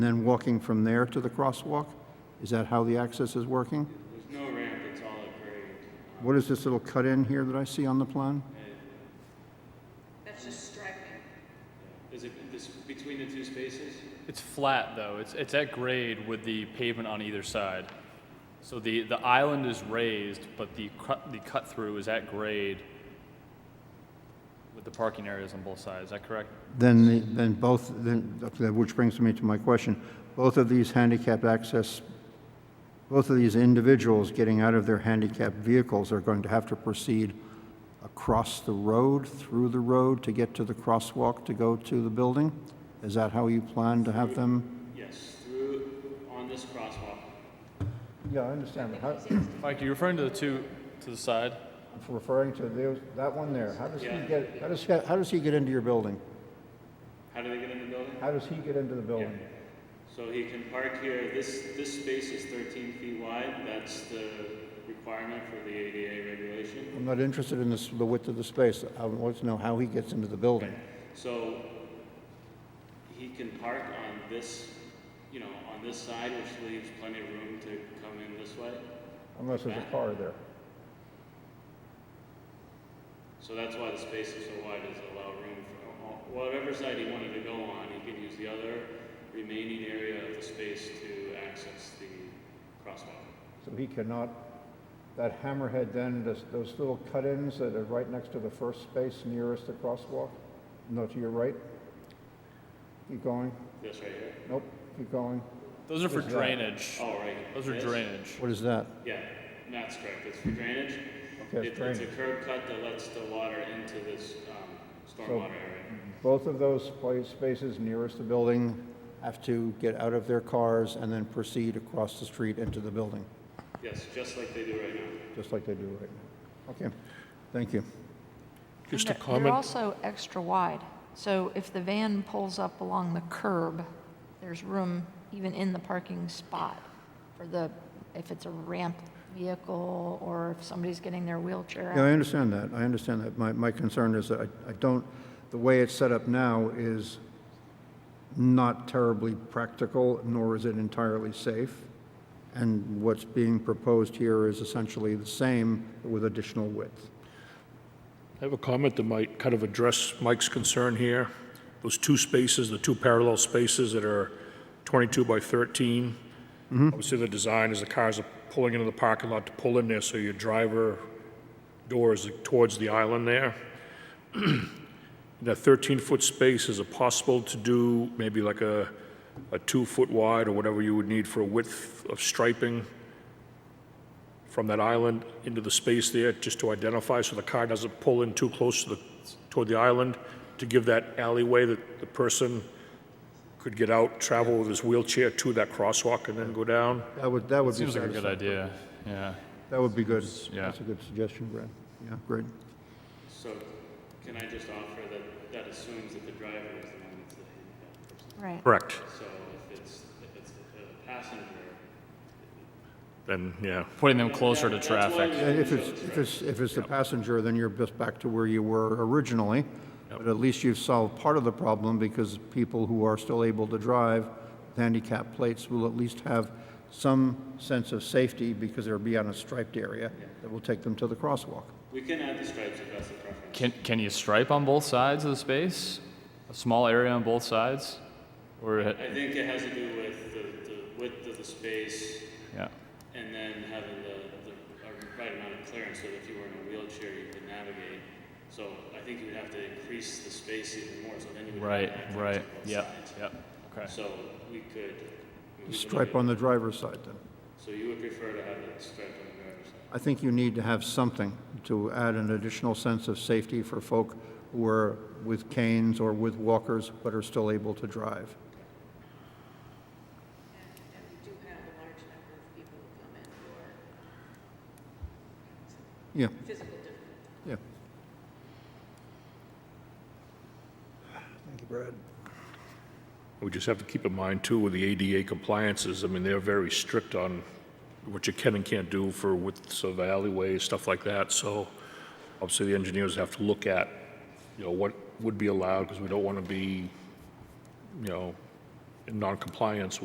And then walking from there to the crosswalk? Is that how the access is working? There's no ramp, it's all a grade. What is this little cut-in here that I see on the plan? That's just striping. Is it this, between the two spaces? It's flat though. It's it's at grade with the pavement on either side. So the, the island is raised, but the cut the cut through is at grade with the parking areas on both sides. Is that correct? Then, the- then both, then, which brings me to my question. Both of these handicap access, both of these individuals getting out of their handicapped vehicles are going to have to proceed across the road, through the road, to get to the crosswalk to go to the building? Is that how you plan to have them? Yes, through, on this crosswalk. Yeah, I understand. How, Mike, are you referring to the two to the side? referring to those- that one there, how does he Yeah. get, how does, how does he get into your building? How do they get in the building? How does he get into the building? So he can park here, this, this space is thirteen feet wide, that's the requirement for the ADA regulation. I'm not interested in this, the width of the space. I want to know how he gets into the building. So he can park on this, you know, on this side, which leaves plenty of room to come in this way. Unless there's a car there. So that's why the space is so wide, is to allow room for all- whatever side he wanted to go on, he can use the other remaining area of the space to access the crosswalk. So he cannot, that hammerhead then, does- those little cut-ins that are right next to the first space nearest the crosswalk? No, to your right? Keep going. This right here? Nope, keep going. Those are for Is that- drainage. Oh, right. Those are This? drainage. What is that? Yeah, that's correct, it's for drainage. Okay, it's It- It's a drainage. curb cut that lets the water into this um, stormwater area. Both of those pla- spaces nearest the building have to get out of their cars and then proceed across the street into the building, Yes, just like they do right now. just like they do right now. Okay, thank you. Just a And they're- They're comment, also extra wide, so if the van pulls up along the curb, there's room even in the parking spot for the, if it's a ramped vehicle or if somebody's getting their wheelchair Yeah, out. I understand that, I understand that. My, my concern is that I, I don't, the way it's set up now is not terribly practical, nor is it entirely safe. And what's being proposed here is essentially the same with additional width. I have a comment that might kind of address Mike's concern here. Those two spaces, the two parallel spaces that are 22 by 13. Obviously, the design is the cars are pulling into the parking lot to pull in there, so your driver door is towards the island there. That 13-foot space, is it possible to do maybe like a, a two-foot wide or whatever you would need for a width of striping? from that island into the space there, just to identify, so the car doesn't pull in too close to the, toward the island, to give that alleyway that the person could get out, travel with his wheelchair to that crosswalk and then go down. That would, that would be Seems like a good satisfying. idea. Yeah. That would be good. Yeah. That's a good suggestion, Brad. Yeah, great. So can I just offer that, that assumes that the driver is the one that's the handicapped person? Right. Correct. So if it's, if it's a passenger. Then, yeah. Putting them closer to traffic. And if it's, if it's, if it's the passenger, then you're just back to where you were originally. But at least you've solved part of the problem because people who are still able to drive with handicap plates will at least have some sense of safety because they'll be on a striped area that will take them to the crosswalk. We can add the stripes if that's the preference. Can can you stripe on both sides of the space? A small area on both sides? Or I think it has to do with the, the width of the space yeah. and then having the, the a right amount of clearance so that if you were in a wheelchair, you could navigate. So I think you would have to increase the space even more, so then you would. have Right, access right. to both Yep. sides. Yep. Okay. So we could. we could Stripe look on the driver's side then. at- So you would prefer to have it striped on the driver's side? I think you need to have something to add an additional sense of safety for folk who are with canes or with walkers but are still able to drive. And we do have a large number of people who come in who are Yeah, um, physical different. yeah. Thank you, Brad. We just have to keep in mind too with the ADA compliances, I mean, they're very strict on what you can and can't do for widths of alleyways, stuff like that, so obviously the engineers have to look at, you know, what would be allowed, because we don't want to be, you know, in non-compliance